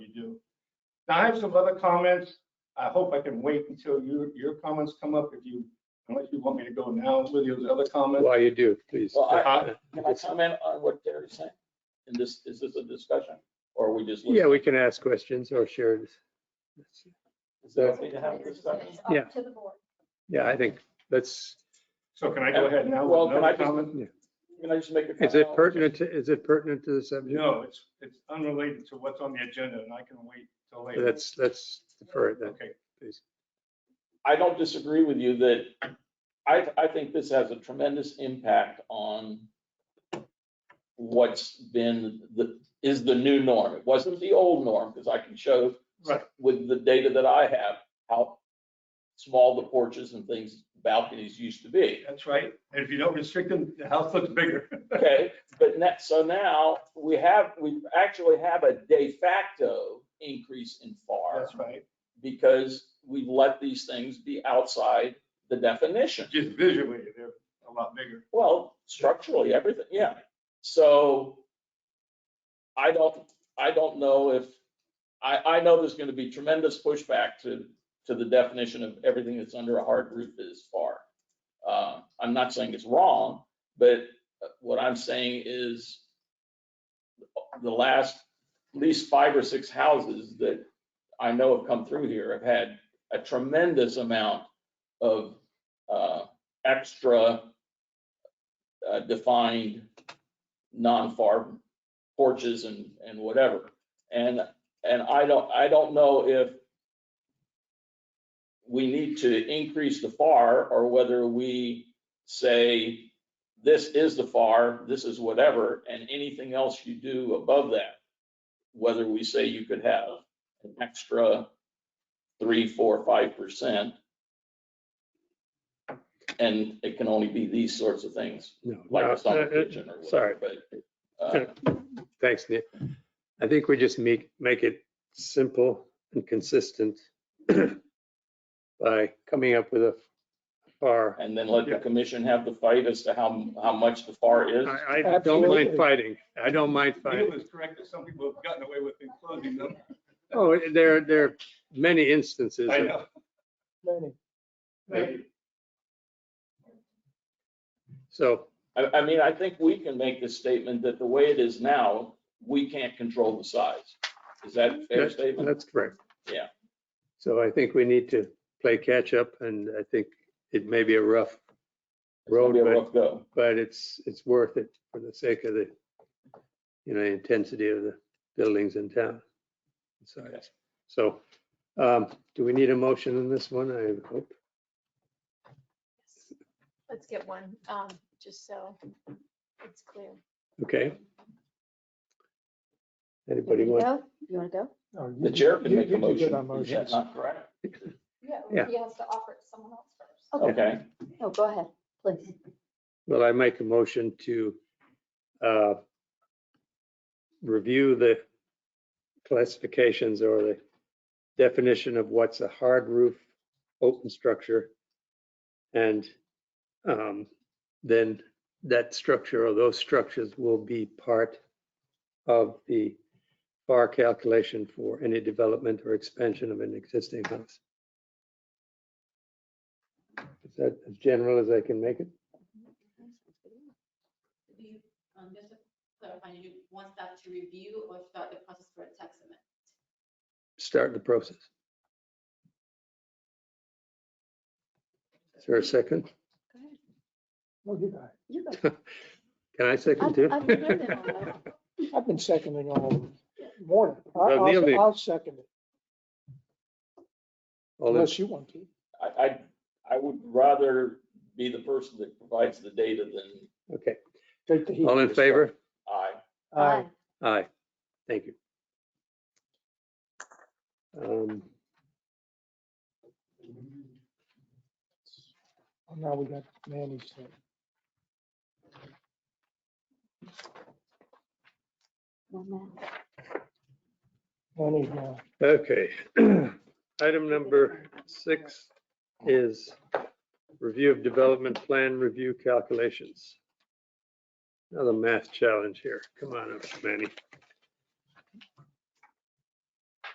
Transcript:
do. Now, I have some other comments. I hope I can wait until your, your comments come up if you, unless you want me to go now with those other comments. While you do, please. Well, I- Uh, Can I comment on what Gary's saying? And this, is this a discussion or are we just? Yeah, we can ask questions or share. this. Is that okay to have a It's discussion? up Yeah. To the board. Yeah, I think that's, So can I go ahead now Well, with can I another just- comment? Can I just make a? is it pertinent, to- is it pertinent to the subject? No, it's, it's unrelated to what's on the agenda and I can wait till later. Let's, let's defer it then. Okay, I don't disagree with you that I, I think this has a tremendous impact on what's been, the, is the new norm. It wasn't the old norm, because I can show Right. with the data that I have, how small the porches and things, balconies used to be. that's right. And if you don't restrict them, the house looks bigger. Okay, but net, so now we have, we actually have a de facto increase in FAR That's right. because we've let these things be outside the definition. Just visually, they're a lot bigger. Well, structurally, everything, yeah. So I don't, I don't know if, I, I know there's gonna be tremendous pushback to, to the definition of everything that's under a hard roof is FAR. Uh, I'm not saying it's wrong, but uh, what I'm saying is the last, at least five or six houses that I know have come through here have had a tremendous amount of, uh, extra uh, defined non-far porches and, and whatever. And, and I don't, I don't know if we need to increase the FAR or whether we say, this is the FAR, this is whatever, and anything else you do above that, whether we say you could have an extra three, four, five percent. And it can only be these sorts of things No, like no, a summer uh, uh, kitchen or Sorry. whatever, but. uh, Thanks, Neil. I think we just make, make it simple and consistent by coming up with a far. And then let Yeah. the commission have the fight as to how, how much the FAR is. I, I don't mind Absolutely. fighting. I don't mind Neil fighting. is correct that some people have gotten away with enclosing them. Oh, there, there are many instances. I of- know. Many. Maybe. So, I, I mean, I think we can make the statement that the way it is now, we can't control the size. Is that a fair that- statement? that's correct. Yeah. So I think we need to play catch up and I think it may be a rough It's gonna be a road, but- rough go. but it's, it's worth it for the sake of the, you know, intensity of the buildings in town. and size. So, um, do we need a motion on this one? I hope. Let's get one, um, just so it's clear. Okay. You Anybody want want? to go? You want to go? No, The Oh, you- chair can you- make you a do good motion. on Is that motions. not correct? Yeah. Yeah, he has to offer it to someone else first. Okay. Okay, No, go ahead, please. Well, I make a motion to uh, review the classifications or the definition of what's a hard roof open structure. And um, then that structure or those structures will be part of the FAR calculation for any development or expansion of an existing house. Is that as general as I can make it? Do you, um, just to clarify, you want that to review or start the process for a tax amendment? start the process. Is there a second? Well, you got You go. Can I second I've- too? I've been doing all that. it. I've been seconding all of them. Morning. I- Well, Neil did. I'll, I'll second it All in- unless you want to. I, I, I would rather be the person that provides the data than Okay, Take the heat. all in favor? I. Aye. Aye, thank you. Um, Well, Now we got Manny's thing. One minute. Manny's now. Okay, item number six is review of development plan review calculations. Another math challenge here. Come on up, Manny.